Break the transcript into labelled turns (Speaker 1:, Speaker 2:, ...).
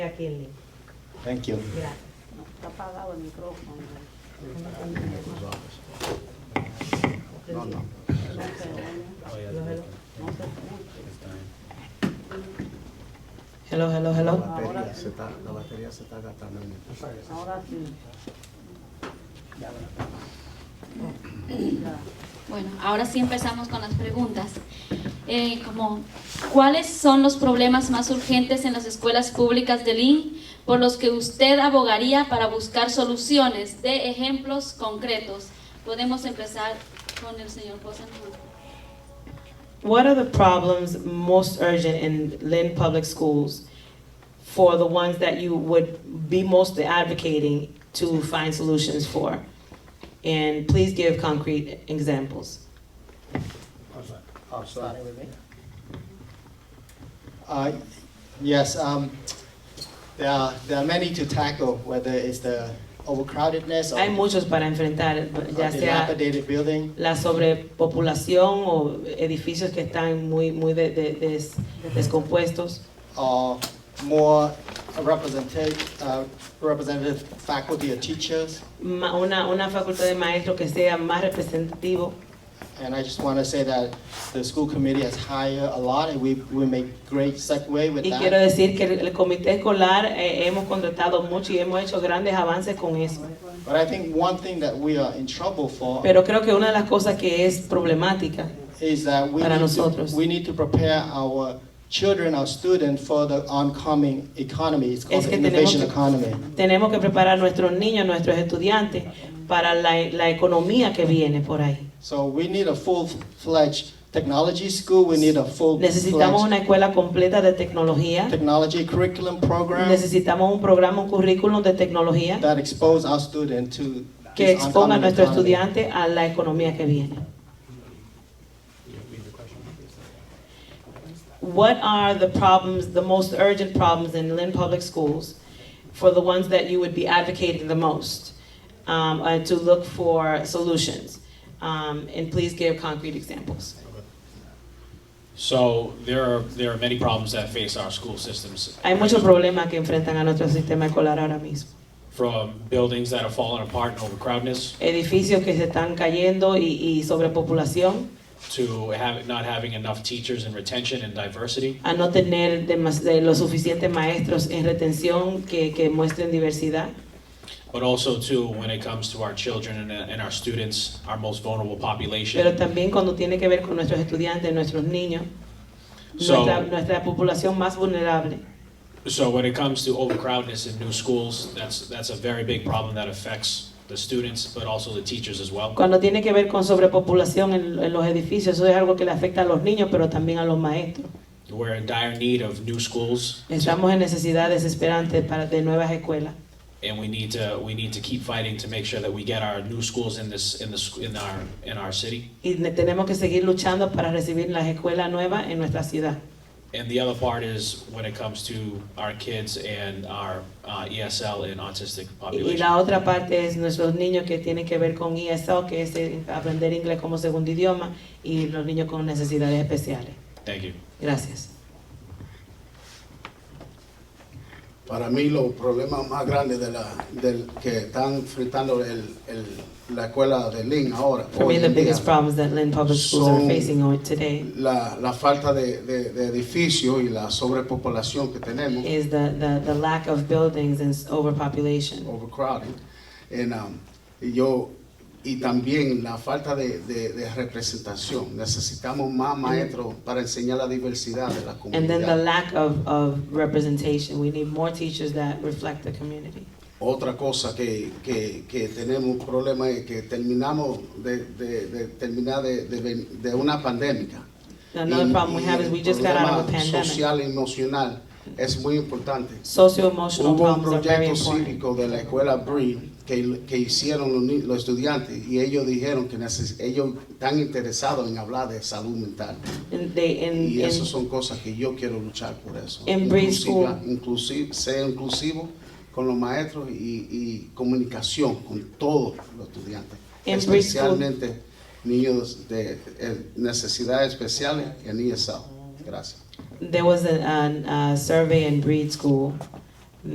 Speaker 1: a Kinley.
Speaker 2: Thank you.
Speaker 1: Gracias.
Speaker 3: Está apagado el micrófono. No se oye, no se escucha.
Speaker 4: Hello, hello,
Speaker 2: La
Speaker 4: hello.
Speaker 2: batería se está, la batería se está gastando.
Speaker 3: Ahora sí. Ya.
Speaker 5: Bueno, ahora sí empezamos con las preguntas. Eh, como, ¿Cuáles son los problemas más urgentes en las escuelas públicas de Lynn por los que usted abogaría para buscar soluciones de ejemplos concretos? Podemos empezar con el señor Bosanquist.
Speaker 4: What are the problems most urgent in Lynn Public Schools for the ones that you would be most advocating to find solutions for? And please give concrete examples.
Speaker 2: Oh, sorry.
Speaker 3: Sorry, bebé.
Speaker 2: Uh, Yes, um, there are, there are many to tackle, whether it's the overcrowdedness
Speaker 4: Hay
Speaker 2: or
Speaker 4: muchos para enfrentar,
Speaker 2: or
Speaker 4: ya sea
Speaker 2: dilapidated building.
Speaker 4: la sobrepopulación o edificios que están muy, muy de- de- des- descompuestos.
Speaker 2: or more representative, uh, representative faculty or teachers.
Speaker 4: Ma- Una, una facultad de maestros que sea más representativo
Speaker 2: And I just want to say that the school committee has hired a lot, and we, we make great segue with
Speaker 4: Y quiero
Speaker 2: that.
Speaker 4: decir que el el comité escolar eh, hemos contratado mucho y hemos hecho grandes avances con eso.
Speaker 2: But I think one thing that we are in trouble for
Speaker 4: Pero creo que una de las cosas que es problemática
Speaker 2: is that we
Speaker 4: Para
Speaker 2: need,
Speaker 4: nosotros.
Speaker 2: to, we need to prepare our children, our students for the oncoming economy. It's called
Speaker 4: Es que
Speaker 2: the innovation
Speaker 4: tenemos que-
Speaker 2: economy.
Speaker 4: tenemos que preparar a nuestros niños, nuestros estudiantes para la, la economía que viene por ahí.
Speaker 2: So we need a full-fledged technology school. We need a
Speaker 4: Necesitamos
Speaker 2: full-fledged
Speaker 4: una escuela completa de tecnología,
Speaker 2: technology curriculum program
Speaker 4: necesitamos un programa, un currículum de tecnología
Speaker 2: that expose our student to
Speaker 4: que
Speaker 2: this
Speaker 4: exponga a
Speaker 2: oncoming
Speaker 4: nuestros
Speaker 2: economy.
Speaker 4: estudiantes a la economía que viene. What are the problems, the most urgent problems in Lynn Public Schools for the ones that you would be advocating the most um, uh, to look for solutions? Um, And please give concrete examples.
Speaker 6: So there are, there are many problems that face our school systems.
Speaker 4: Hay muchos problemas que enfrentan a nuestro sistema escolar ahora mismo.
Speaker 6: From buildings that are falling apart and overcrowdedness,
Speaker 4: Edificios que se están cayendo y- y sobrepopulación,
Speaker 6: to have, not having enough teachers and retention and diversity,
Speaker 4: a no tener demas- de los suficientes maestros en retención que, que muestren diversidad,
Speaker 6: but also to, when it comes to our children and, and our students, our most vulnerable
Speaker 4: pero
Speaker 6: population.
Speaker 4: también cuando tiene que ver con nuestros estudiantes, nuestros niños,
Speaker 6: So-
Speaker 4: nuestra, nuestra población más vulnerable.
Speaker 6: So when it comes to overcrowdedness in new schools, that's, that's a very big problem that affects the students, but also the teachers as well.
Speaker 4: Cuando tiene que ver con sobrepopulación en, en los edificios, eso es algo que le afecta a los niños, pero también a los maestros.
Speaker 6: We're in dire need of new schools,
Speaker 4: Estamos en necesidad desesperante para, de nuevas escuelas.
Speaker 6: and we need to, we need to keep fighting to make sure that we get our new schools in this, in the, sc- in our, in our city.
Speaker 4: Y ne- tenemos que seguir luchando para recibir las escuelas nuevas en nuestra ciudad.
Speaker 6: And the other part is when it comes to our kids and our uh, ESL and autistic
Speaker 4: Y- Y
Speaker 6: population.
Speaker 4: la otra parte es nuestros niños que tienen que ver con ESL, que es eh, aprender inglés como segundo idioma, y los niños con necesidades especiales.
Speaker 6: Thank you.
Speaker 4: Gracias.
Speaker 7: Para mí los problemas más grandes de la, del, que están enfrentando el, el, la escuela de Lynn ahora,
Speaker 4: For me,
Speaker 7: hoy
Speaker 4: the
Speaker 7: en día,
Speaker 4: biggest problems that Lynn Public Schools are
Speaker 7: Son-
Speaker 4: facing on today
Speaker 7: la, la falta de, de, de edificios y la sobrepopulación que tenemos,
Speaker 4: is the, the, the lack of buildings and s- overpopulation.
Speaker 7: Oh, overcrowding, en, um, y yo, y también la falta de, de, de representación. Necesitamos más maestros para enseñar la diversidad de la
Speaker 4: And then the
Speaker 7: comunidad.
Speaker 4: lack of, of representation. We need more teachers that reflect the community.
Speaker 7: Otra cosa que, que, que tenemos problema es que terminamos de, de, de terminar de, de, ven- de una pandemia.
Speaker 4: Another
Speaker 7: Y-
Speaker 4: problem we
Speaker 7: y
Speaker 4: have is
Speaker 7: el
Speaker 4: we just got out of a
Speaker 7: problema
Speaker 4: pandemic.
Speaker 7: Social y emocional es muy importante.
Speaker 4: Socio-emotional
Speaker 7: Hubo un
Speaker 4: problems are very
Speaker 7: proyecto
Speaker 4: important.
Speaker 7: cívico de la escuela Bree que, que hicieron los, ni- los estudiantes y ellos dijeron que neces- ellos están interesados en hablar de salud mental.
Speaker 4: And they, and,
Speaker 7: Y
Speaker 4: and
Speaker 7: eso son cosas que yo quiero luchar por eso.
Speaker 4: En Bree
Speaker 7: Inclusiva-
Speaker 4: School.
Speaker 7: inclusive, sea inclusivo con los maestros y, y comunicación con todos los estudiantes.
Speaker 4: En Bree School.
Speaker 7: especialmente niños de eh, necesidades especiales en ESL. Gracias.
Speaker 4: There was a, an- a survey in Breed School